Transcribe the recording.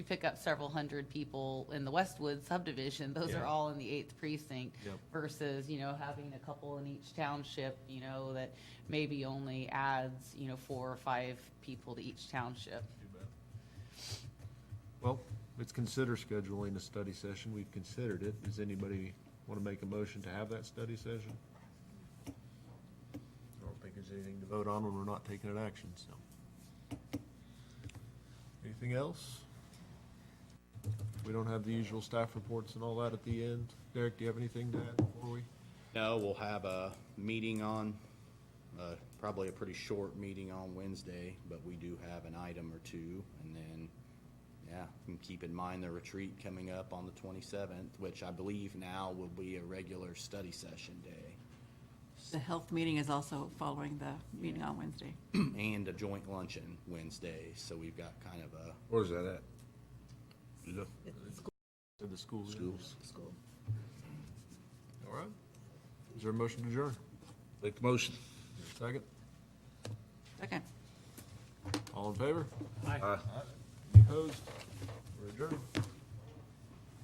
you pick up several hundred people in the Westwood subdivision, those are Yeah. all in the eighth precinct Yep. versus, you know, having a couple in each township, you know, that maybe only adds, you know, four or five people to each township. Well, let's consider scheduling a study session. We've considered it. Does anybody want to make a motion to have that study session? I don't think there's anything to vote on when we're not taking an action, so. Anything else? We don't have the usual staff reports and all that at the end. Derek, do you have anything to add before we? No, we'll have a meeting on, uh, probably a pretty short meeting on Wednesday, but we do have an item or two. And then, yeah, and keep in mind the retreat coming up on the 27th, which I believe now will be a regular study session day The health meeting is also following the meeting on Wednesday. and a joint luncheon Wednesday. So we've got kind of a Where's that at? Look, To the schools. schools. All right. Is there a motion to adjourn? Make the motion. Second? Second. All in favor? Aye. Opposed? We're adjourned.